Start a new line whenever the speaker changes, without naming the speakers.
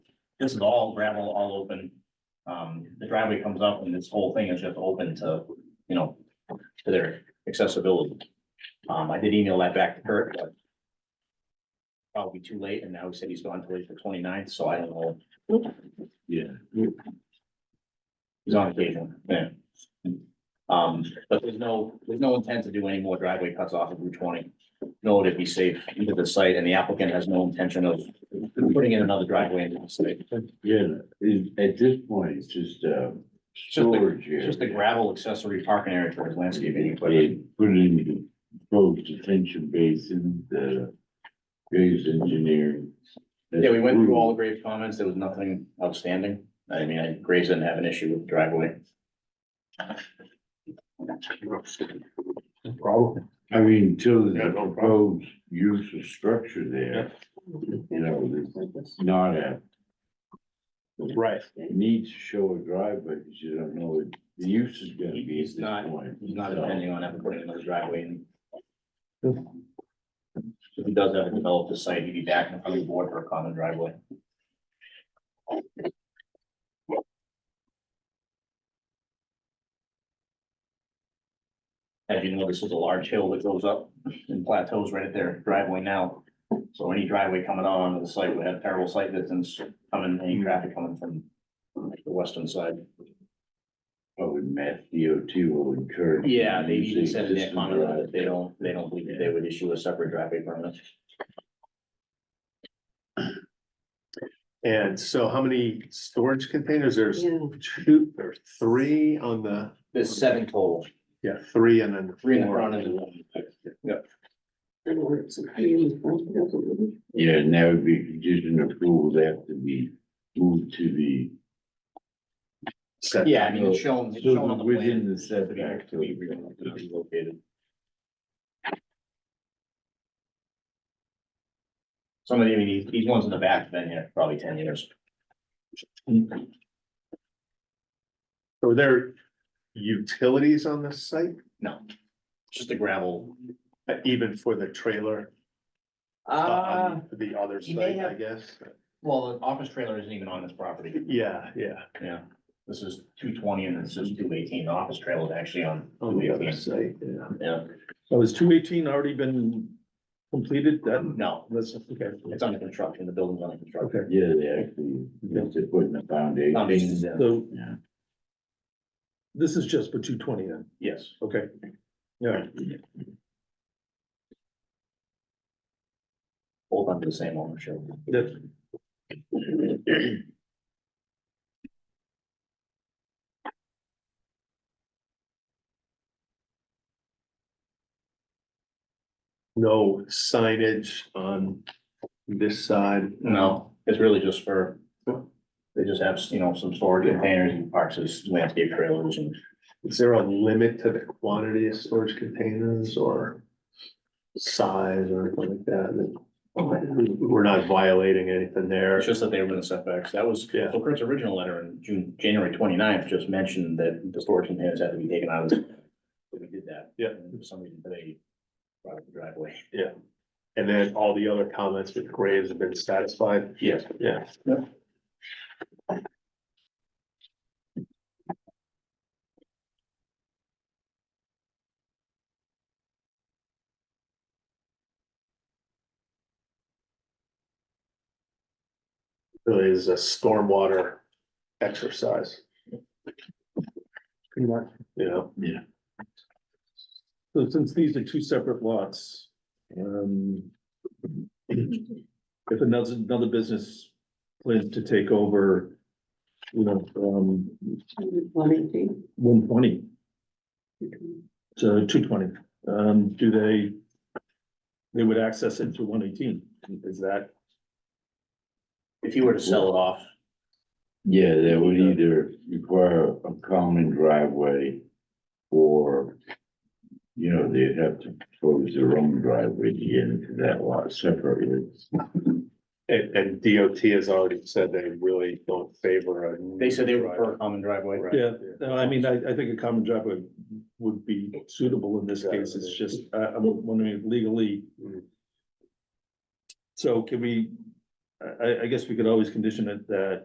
This is all gravel, all open. Um, the driveway comes up and this whole thing is just open to, you know, to their accessibility. Um, I did email that back to Kurt, but probably too late, and now he said he's gone till the 29th, so I don't know.
Yeah.
He's on occasion, yeah. Um, but there's no, there's no intent to do any more driveway cuts off of Route twenty. Nor would it be safe into the site, and the applicant has no intention of putting in another driveway into the site.
Yeah, it- at this point, it's just, uh,
just a-
storage
It's
area.
just a gravel accessory parking area towards landscaping.
They put it in the proposed detention basin, the Graves engineering.
Yeah, we went through all the grave comments. There was nothing outstanding. I mean, I- Graves didn't have an issue with the driveway.
Problem. I mean, until
Yeah,
the
no problem.
proposed use of structure there, you know, there's not a
Right.
need to show a driveway, because you don't know what the use is gonna be
He's
at
not-
this point.
He's not
So-
depending on ever putting another driveway in. If he does ever develop the site, he'd be back in front of the board for a common driveway. As you know, this is a large hill that goes up and plateaus right at their driveway now. So any driveway coming out onto the site would have terrible sight distance coming, any traffic coming from the western side.
Probably Mass DOT will encourage.
Yeah, they
using
even said in their
existing
comment
drive-
that they don't, they don't believe that they would issue a separate driveway permit.
And so how many storage containers? There's
Yeah.
two or three on the,
There's seven total,
yeah, three and then
three in the
four
front
on
and
the.
one.
I don't know, it's a pain, but it doesn't-
Yeah, and that would be condition approval, they have to be moved to the.
set.
Yeah, I mean, it's shown, it's shown on the
Within
plan.
the
to be-
setback.
to be re- to be located. Some of the, I mean, these, these ones in the back have been here probably ten years.
Are there utilities on this site,
No, it's just a gravel.
Uh, even for the trailer?
Uh,
on The other
he may
site, I
have-
guess.
well, the office trailer isn't even on this property.
Yeah, yeah,
Yeah, this is two twenty and this is two eighteen, the office trailer is actually on.
on the other
218.
site, yeah.
Yeah,
So has two eighteen already been completed then?
no,
That's, okay.
it's under construction, the building's under construction.
Okay,
Yeah, they actually, once they put in the foundation.
Foundations, yeah.
so
Yeah.
this is just for two twenty then,
Yes,
okay? Yeah,
both under the same ownership.
that's,
No signage on this side.
No, it's really just for, they just have, you know, some storage containers and parks as landscape trailers and.
Is there a limit to the quantity of storage containers or size or anything like that? that? We're not violating anything there.
It's just that they were in setbacks, that was,
Yeah.
so Kurt's original letter in June, January 29th just mentioned that the storage containers had to be taken out of the. We did that.
Yeah.
And For some reason, they brought up the driveway.
And then all the other comments with Graves have been satisfied.
Yes.
Yeah. Really is a stormwater exercise. You know,
so since these are two separate lots, um. If another, another business plans to take over, you know, um,
One eighteen.
one twenty to two twenty, um, do they? They would access it to one eighteen, is that?
If you were to sell it off,
Yeah, they would either require a common driveway or, you know, they'd have to propose their own driveway to get into that lot separately.
and, and DOT has already said they really don't favor a.
they said they were for a common driveway.
Right.
Yeah, no, I mean, I, I think a common driveway would be suitable in this case, it's just, I, I'm wondering legally.
Mm.
So can we, I, I, I guess we could always condition it that